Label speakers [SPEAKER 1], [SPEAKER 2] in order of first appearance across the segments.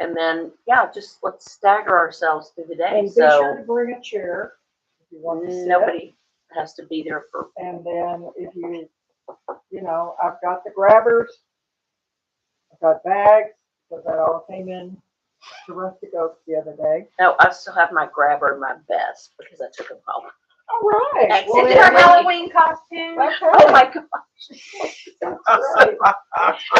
[SPEAKER 1] And then, yeah, just let's stagger ourselves through the day,
[SPEAKER 2] And be sure
[SPEAKER 1] so
[SPEAKER 2] to bring a chair if you want to sit.
[SPEAKER 1] nobody has to be there for,
[SPEAKER 2] And then if you, you know, I've got the grabbers. I've got bags, because that all came in to Rustic Oaks the other day.
[SPEAKER 1] no, I still have my grabber and my vest because I took them home.
[SPEAKER 2] All right.
[SPEAKER 1] Exit
[SPEAKER 2] well,
[SPEAKER 3] Is
[SPEAKER 1] Did
[SPEAKER 3] it
[SPEAKER 1] her
[SPEAKER 3] her
[SPEAKER 2] then-
[SPEAKER 3] Halloween costume?
[SPEAKER 1] Oh
[SPEAKER 2] Okay,
[SPEAKER 1] my God.
[SPEAKER 2] that's right.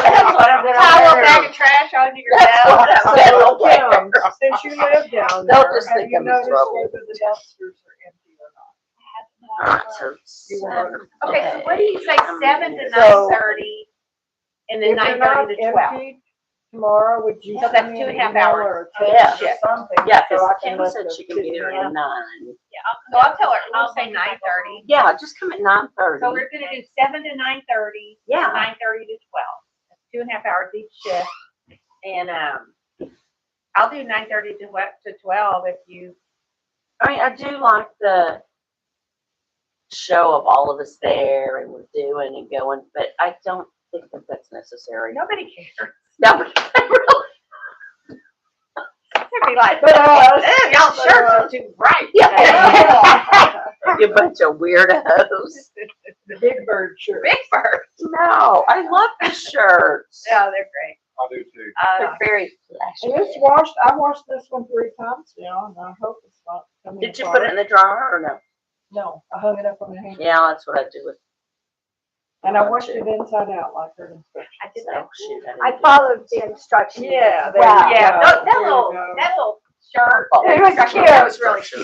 [SPEAKER 1] That's what I'm
[SPEAKER 3] Towel, bag
[SPEAKER 1] gonna
[SPEAKER 3] of trash under your
[SPEAKER 1] That's
[SPEAKER 3] belt.
[SPEAKER 1] what I'm
[SPEAKER 2] So,
[SPEAKER 1] gonna wear.
[SPEAKER 2] Kim, Since you live down
[SPEAKER 1] They'll
[SPEAKER 2] there,
[SPEAKER 1] just
[SPEAKER 2] have
[SPEAKER 1] think
[SPEAKER 2] you
[SPEAKER 1] I'm in
[SPEAKER 2] noticed
[SPEAKER 1] trouble.
[SPEAKER 2] whether the dumpsters are empty or not?
[SPEAKER 1] So
[SPEAKER 2] You are-
[SPEAKER 3] Okay, so what do you say, seven to
[SPEAKER 2] So-
[SPEAKER 3] nine thirty? And then
[SPEAKER 2] If they're
[SPEAKER 3] nine thirty to
[SPEAKER 2] not
[SPEAKER 3] twelve?
[SPEAKER 2] emptied Tomorrow, would you?
[SPEAKER 3] So
[SPEAKER 2] send
[SPEAKER 3] that's
[SPEAKER 2] me
[SPEAKER 3] two and a
[SPEAKER 2] an
[SPEAKER 3] half
[SPEAKER 2] email
[SPEAKER 3] hours.
[SPEAKER 2] or a
[SPEAKER 1] Yeah.
[SPEAKER 2] text or Something.
[SPEAKER 1] Yeah,
[SPEAKER 2] so I
[SPEAKER 1] cause
[SPEAKER 2] can
[SPEAKER 1] Kim
[SPEAKER 2] let
[SPEAKER 1] said
[SPEAKER 2] the
[SPEAKER 1] she can be
[SPEAKER 2] kids
[SPEAKER 1] there
[SPEAKER 2] know.
[SPEAKER 1] at nine.
[SPEAKER 3] So I'll tell her, we'll say nine thirty.
[SPEAKER 1] Yeah, just come at nine thirty.
[SPEAKER 3] So we're gonna do seven to nine thirty.
[SPEAKER 1] Yeah.
[SPEAKER 3] Nine thirty to twelve. That's Two and a half hours each shift. And, um, I'll do nine thirty to what, to twelve if you,
[SPEAKER 1] I mean, I do like the show of all of us there and we're doing and going, but I don't think that that's necessary.
[SPEAKER 3] nobody cares.
[SPEAKER 1] No,
[SPEAKER 3] They'd be like,
[SPEAKER 2] But, uh,
[SPEAKER 3] "Eh, y'all shirts are too bright.
[SPEAKER 1] Yeah.
[SPEAKER 2] yeah,
[SPEAKER 1] you bunch of weirdos.
[SPEAKER 2] The big bird shirt.
[SPEAKER 3] Big bird.
[SPEAKER 1] No, I love the shirts.
[SPEAKER 3] No, Oh, they're great.
[SPEAKER 4] I do too.
[SPEAKER 3] Uh,
[SPEAKER 1] They're very
[SPEAKER 2] And it's
[SPEAKER 1] flashy.
[SPEAKER 2] washed, I washed this one three times now, and I hope it's not coming
[SPEAKER 1] Did you put it in the dryer or no?
[SPEAKER 2] No, I hung it up on the hanger,
[SPEAKER 1] Yeah, that's what I do with,
[SPEAKER 2] and I washed it inside out like her instructions.
[SPEAKER 3] I did that.
[SPEAKER 1] oh shoot. didn't
[SPEAKER 5] I
[SPEAKER 1] do that.
[SPEAKER 5] followed the instructions.
[SPEAKER 2] Yeah, there
[SPEAKER 5] Wow.
[SPEAKER 2] you
[SPEAKER 3] Yeah,
[SPEAKER 2] go.
[SPEAKER 3] that, that
[SPEAKER 2] There you
[SPEAKER 3] little,
[SPEAKER 2] go.
[SPEAKER 3] that little shirt.
[SPEAKER 1] Follow
[SPEAKER 5] It was
[SPEAKER 1] the
[SPEAKER 5] cute.
[SPEAKER 1] instructions.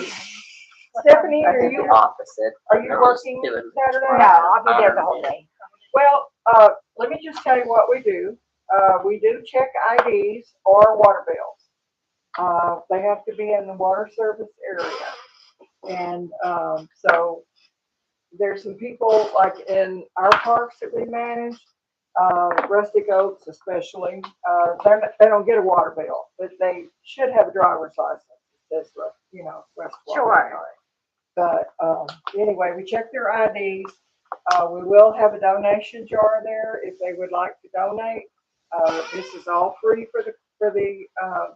[SPEAKER 5] It was really
[SPEAKER 2] Stephanie,
[SPEAKER 1] I
[SPEAKER 2] are
[SPEAKER 1] did
[SPEAKER 2] you,
[SPEAKER 1] the opposite.
[SPEAKER 2] are you
[SPEAKER 1] No,
[SPEAKER 2] working
[SPEAKER 1] do it in the
[SPEAKER 2] Saturday?
[SPEAKER 5] No,
[SPEAKER 1] dryer.
[SPEAKER 5] I'll be there the whole day.
[SPEAKER 2] Well, uh, let me just tell you what we do. Uh, we do check IDs or water bills. Uh, they have to be in the water service area. And, um, so there's some people like in our parks that we manage, uh, rustic oaks especially, uh, they're, not- they don't get a water bill, but they should have a driver's license. That's right, you know, West Water.
[SPEAKER 5] Sure.
[SPEAKER 2] But, um, anyway, we check their IDs. Uh, we will have a donation jar there if they would like to donate. Uh, this is all free for the, for the, uh,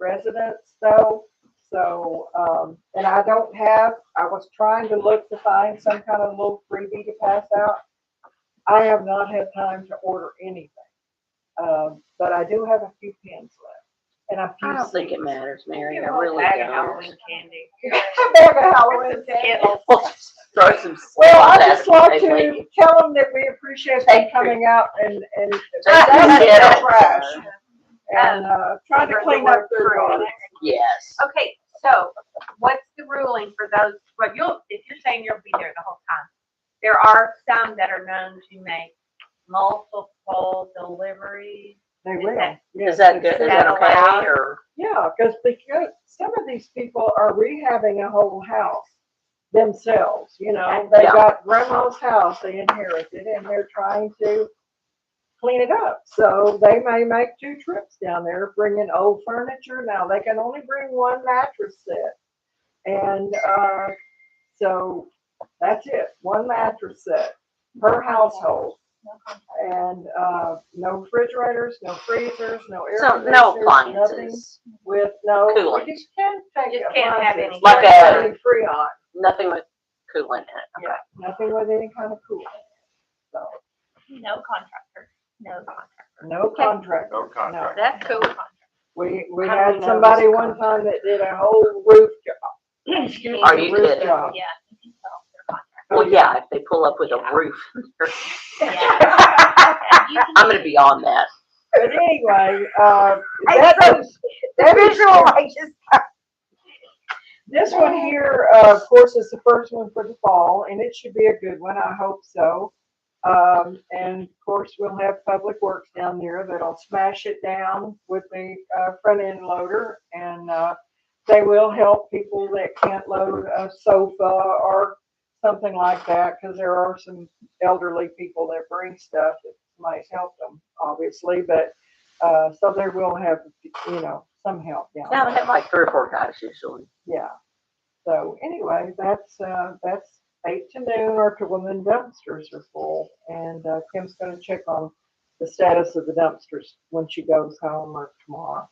[SPEAKER 2] residents though. So, um, and I don't have, I was trying to look to find some kind of little freebie to pass out. I have not had time to order anything. Um, but I do have a few pins left and a few.
[SPEAKER 1] I don't think it
[SPEAKER 2] seeds.
[SPEAKER 1] matters, Mary.
[SPEAKER 3] Give
[SPEAKER 1] I
[SPEAKER 3] them a
[SPEAKER 1] really
[SPEAKER 3] bag of
[SPEAKER 1] don't.
[SPEAKER 3] Halloween candy.
[SPEAKER 2] A bag of Halloween candy.
[SPEAKER 3] Skittles.
[SPEAKER 1] Throw some.
[SPEAKER 2] Well, I just
[SPEAKER 1] That's what
[SPEAKER 2] want
[SPEAKER 1] they make
[SPEAKER 2] to
[SPEAKER 1] you.
[SPEAKER 2] tell them that we appreciate them
[SPEAKER 1] Thank you.
[SPEAKER 2] coming out and, and.
[SPEAKER 1] Thank you.
[SPEAKER 2] That's trash. And, uh, trying to
[SPEAKER 3] Remember the
[SPEAKER 2] clean up
[SPEAKER 3] word
[SPEAKER 2] their
[SPEAKER 3] free.
[SPEAKER 2] yard.
[SPEAKER 1] Yes.
[SPEAKER 3] Okay, so what's the ruling for those, but you'll, if you're saying you'll be there the whole time, there are some that are known to make multiple deliveries.
[SPEAKER 2] They
[SPEAKER 3] Is
[SPEAKER 2] will.
[SPEAKER 3] that-
[SPEAKER 2] Yes,
[SPEAKER 1] Is that
[SPEAKER 2] it's
[SPEAKER 1] good? Is
[SPEAKER 2] true.
[SPEAKER 1] that
[SPEAKER 3] That
[SPEAKER 1] okay
[SPEAKER 3] allowed?
[SPEAKER 1] or?
[SPEAKER 2] Yeah, because because some of these people are rehabbing a whole house themselves, you know, they
[SPEAKER 1] Yeah.
[SPEAKER 2] got grandma's house they inherited and they're trying to clean it up. So they may make two trips down there, bringing old furniture. Now they can only bring one mattress set. And uh, so that's it, one mattress set per household. And uh, no refrigerators, no freezers, no air
[SPEAKER 1] So no
[SPEAKER 2] conditioners, nothing
[SPEAKER 1] appliances,
[SPEAKER 2] with no.
[SPEAKER 1] Coolant.
[SPEAKER 2] You can take
[SPEAKER 3] Just can't have any-
[SPEAKER 2] appliances,
[SPEAKER 1] Like
[SPEAKER 2] but
[SPEAKER 1] a-
[SPEAKER 2] any Freon,
[SPEAKER 1] nothing with coolant in it.
[SPEAKER 2] yeah, nothing with any kind of coolant, so,
[SPEAKER 3] No contractor, no contractor.
[SPEAKER 2] no contract.
[SPEAKER 4] No contract.
[SPEAKER 3] That's cool.
[SPEAKER 2] We, we
[SPEAKER 1] How do we
[SPEAKER 2] had
[SPEAKER 1] know
[SPEAKER 2] somebody
[SPEAKER 1] there's a
[SPEAKER 2] one time that did a whole roof job.
[SPEAKER 1] Are you
[SPEAKER 2] Roof
[SPEAKER 1] kidding?
[SPEAKER 2] job.
[SPEAKER 3] Yeah.
[SPEAKER 1] Well, yeah, if they pull up with a roof, I'm gonna be on that.
[SPEAKER 2] But anyway, uh,
[SPEAKER 5] I
[SPEAKER 2] that
[SPEAKER 5] so-
[SPEAKER 2] was, that
[SPEAKER 5] Visual,
[SPEAKER 2] was,
[SPEAKER 5] I just,
[SPEAKER 2] this one here, uh, of course, is the first one for the fall, and it should be a good one, I hope so. Um, and of course, we'll have Public Works down there that'll smash it down with the, uh, front end loader. And, uh, they will help people that can't load a sofa or something like that, because there are some elderly people that bring stuff that might help them, obviously, but, uh, so they will have, you know, some help down
[SPEAKER 1] Now they
[SPEAKER 2] there.
[SPEAKER 1] have like three or four guys usually.
[SPEAKER 2] Yeah. So anyway, that's, uh, that's eight to noon or to when the dumpsters are full. And, uh, Kim's gonna check on the status of the dumpsters when she goes home or tomorrow.